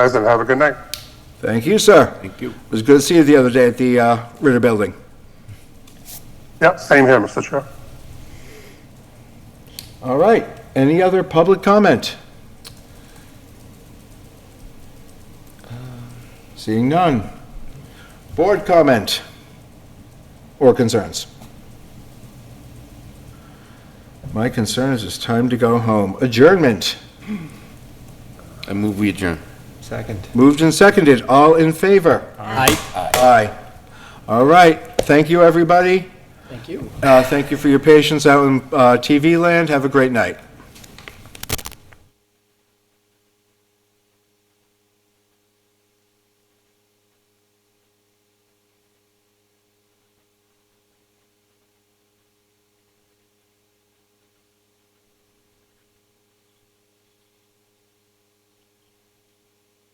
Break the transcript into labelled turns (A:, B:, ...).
A: guys, and have a good night.
B: Thank you, sir. Thank you. It was good to see you the other day at the uh, Ritter Building.
A: Yep, same here, Mr. Chair.
B: All right, any other public comment? Uh, Seeing none. Board comment or concerns? My concern is it's time to go home. Adjournment,
C: I move we adjourn.
D: Second.
B: moved and seconded, all in favor?
D: Aye.
B: Aye. All right, thank you, everybody.
D: Thank you.
B: Uh, Thank you for your patience out in uh, TV land, have a great night.